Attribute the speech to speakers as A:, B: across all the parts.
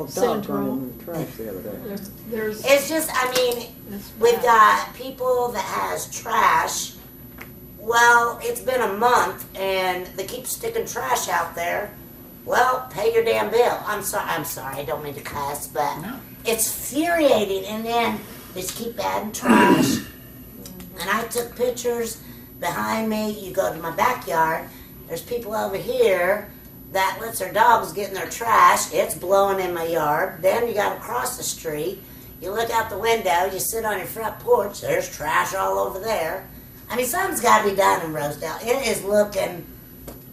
A: Well, dog
B: Syndrome.
A: run in the trash the other day.
B: There's, there's.
C: It's just, I mean,
B: that's
C: with
B: bad.
C: uh, people that has trash. Well, it's been a month and they keep sticking trash out there. Well, pay your damn bill. I'm sorry. I'm sorry. I don't mean to cuss, but it's infuriating. And then they just keep adding trash. and I took pictures behind me. You go to my backyard. There's people over here that lets their dogs get in their trash. It's blowing in my yard. Then you got to cross the street. You look out the window, you sit on your front porch, there's trash all over there. I mean, something's got to be done in Rosedale. It is looking,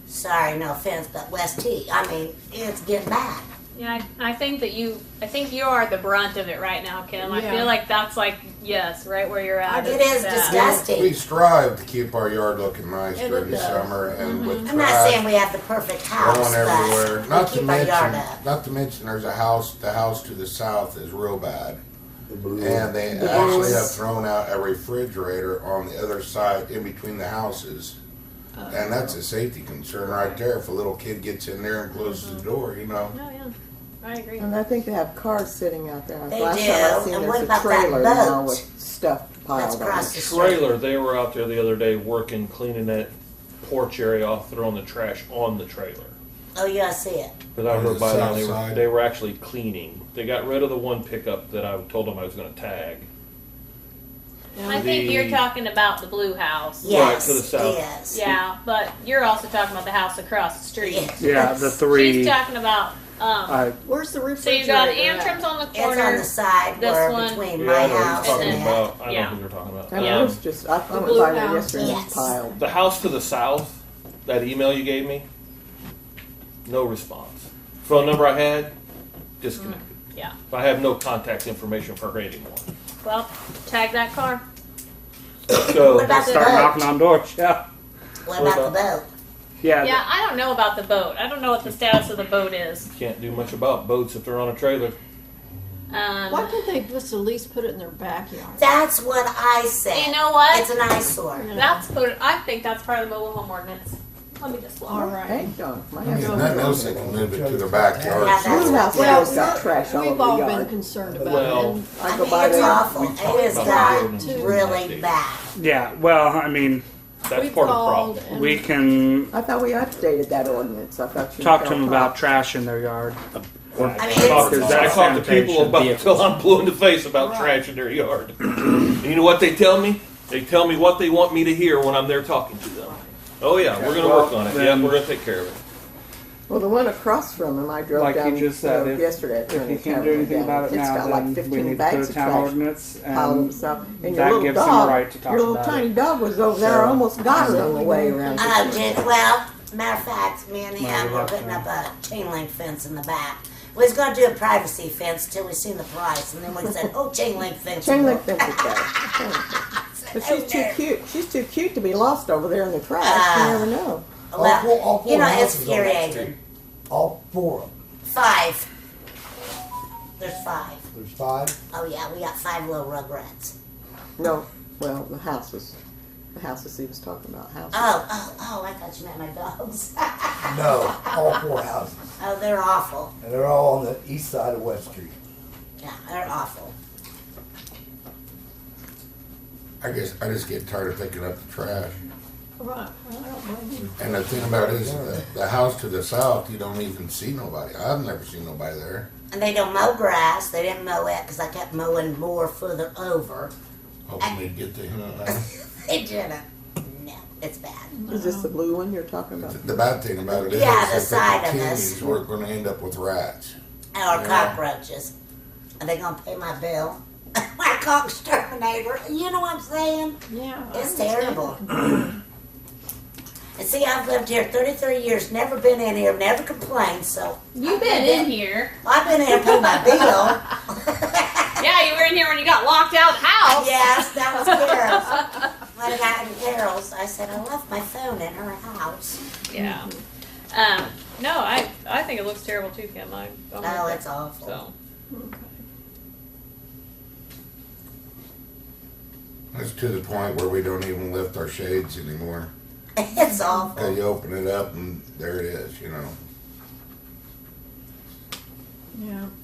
C: sorry, no offense, but West T. I mean, it's getting bad.
D: Yeah, I, I think that you, I think you are the brunt of it right now, Kim. I
B: Yeah.
D: feel like that's like, yes, right where you're at.
C: It is
D: that.
C: disgusting.
E: We strive to keep our yard looking nice
B: It
E: during the
B: does.
E: summer and with
C: Mm-hmm. I'm not saying
E: trash
C: we have the perfect house,
E: going everywhere.
C: but
E: Not
C: we
E: to
C: keep our yard
E: mention,
C: up.
E: not to mention, there's a house, the house to the south is real bad.
A: The blue
E: And they
C: Yes.
E: actually have thrown out a refrigerator on the other side in between the houses.
C: Oh,
E: And that's a safety concern right there. If a little kid gets in there and closes
C: Mm-hmm.
E: the door, you know.
D: Oh, yeah. I agree.
F: And I think they have cars sitting out there.
C: They
F: Last time
C: do.
F: I seen,
C: And
F: there's
C: what
F: a
C: about that
F: trailer now
C: boat?
F: with stuff
C: That's
F: piled on
C: across
F: it.
C: the street.
G: trailer, they were out there the other day working, cleaning that porch area off, throwing the trash on the trailer.
C: Oh, yeah, I see it.
G: But I
E: On the
G: rode by them,
E: south
G: they were,
E: side.
G: they were actually cleaning. They got rid of the one pickup that I told them I was gonna tag.
D: I think
G: The-
D: you're talking about the blue house.
G: Yeah. Right,
C: Yes,
G: to the south.
C: yes.
D: Yeah, but you're also talking about the house across the street.
C: Yes.
H: Yeah, the three.
D: She's talking about, um,
H: I,
B: Where's the
D: so
B: refrigerator?
D: you got
B: at?
D: Antrim's on the
C: It's on
D: corner.
C: the side
D: This
C: where
D: one.
C: between
G: Yeah,
C: my
G: I know
C: house
G: what you're
C: and
G: talking
C: that.
G: about. I know
D: Yeah.
G: who you're talking about. Um,
F: And
D: Yeah.
F: it was just, I I went
B: blue
F: by there
B: house.
F: yesterday, and it
C: Yes.
F: was piled.
G: The house to the south, that email you gave me, no response. Phone number I had, disconnected.
D: Mm, Yeah.
G: I have no contact information for her anymore.
D: Well, tag that car.
C: What
G: So,
C: about the
H: start knocking
C: boat?
H: on doors. Yeah.
C: What about the boat?
H: Yeah.
D: Yeah, I don't know about the boat. I don't know what the status of the boat is.
G: can't do much about boats if they're on a trailer.
D: Um,
B: Why can't they just at least put it in their backyard?
C: That's what I said.
D: you know what?
C: It's an eyesore.
D: That's what I think that's part of the mobile home ordinance. Let me just look.
B: All right.
F: Hey, John, my
E: I mean,
F: husband-
E: nothing else they can move it to their
C: Yeah,
E: backyard.
C: that's-
F: Blue house
B: Well,
F: always got
B: we're-
F: trash all
B: we've
F: over
B: all
F: the
B: been
F: yard.
B: concerned about it.
G: Well,
B: and
F: I
C: I
F: go
C: mean,
F: by
C: it's
F: there,
C: awful.
G: We
C: It
G: talked
C: has
G: about
C: got
G: that.
C: really bad.
H: Yeah. Well, I mean,
G: That's
B: we've
G: part of the
B: called
G: problem.
B: and-
H: we can
F: I thought we updated that ordinance, I thought you.
H: talk to them about trash in their yard.
C: I mean,
G: I talk,
C: it's
H: Because
G: I
H: that's
G: talk to people
H: sanitation
G: about until I'm blue in the face about trash in their yard. and you know what they tell me? They tell me what they want me to hear when I'm there talking to them. Oh yeah, we're gonna work on it. Yeah,
H: then-
G: we're gonna take care of it.
F: Well, the one across from him, I drove
H: Like you
F: down
H: just said,
F: uh,
H: if-
F: yesterday.
H: If you can't do anything about it now, then we need to put a town ordinance
F: Piled
H: and
F: himself, Um, and
H: Um, that
F: your little
H: gives them a
F: dog,
H: right to talk
F: your little
H: about it.
F: tiny dog was over there,
H: So-
F: almost got her on the way around. the
C: Oh, did, well, matter of fact, me and
H: Might
C: him
H: be
C: were
H: left
C: putting up
H: hand.
C: a chain link fence in the back. We was gonna do a privacy fence till we seen the price, and then we said, "Oh, chain link fence."
F: Chain link fence is better. Chain link fence. But she's too cute. She's too cute to be lost over there in the trash. You
C: Ah.
F: never know.
C: Well,
I: four- all four
C: you know, it's
I: houses on that
C: infuriating.
I: street. All four of them.
C: Five. There's five.
I: There's five.
C: Oh yeah, we got five little rugrats.
F: No, well, the houses, the houses he was talking about, houses.
C: Oh, oh, oh! I thought you meant my dogs.
I: No, all four houses.
C: oh, they're awful.
I: And they're all on the east side of West Street.
C: Yeah, they're awful.
E: I guess I just get tired of picking up the trash.
B: Right. Well, I don't blame you.
E: And the thing about it is, the, the house to the south, you don't even see nobody. I've never seen nobody there.
C: And they don't mow grass. They didn't mow it because I kept mowing more further over.
E: Hoping we get to him.
C: They didn't. No, it's bad.
F: Is this the blue one you're talking about?
E: The bad thing about it is,
C: Yeah, the
E: if
C: side
E: it
C: of
E: continues,
C: us.
E: we're going to end up with rats.
C: Or
E: Yeah.
C: cockroaches. Are they gonna pay my bill? my cock exterminator. You know what I'm saying?
B: Yeah. I
C: It's
B: understand.
C: terrible. and see, I've lived here 33 years, never been in here, never complained. So
D: You've been in here.
C: I've been in here paying my bill.
D: Yeah, you were in here when you got locked out of the house.
C: Yes, that was Carol's. When I got in Carol's, I said, I left my phone in her house.
D: Yeah. Um, no, I I think it looks terrible too, Kim. I, I'm with
C: Oh,
D: you.
C: it's awful.
D: so.
E: It's to the point where we don't even lift our shades anymore.
C: It's
E: 'Cause
C: awful.
E: you open it up and there it is, you know.
B: Yeah.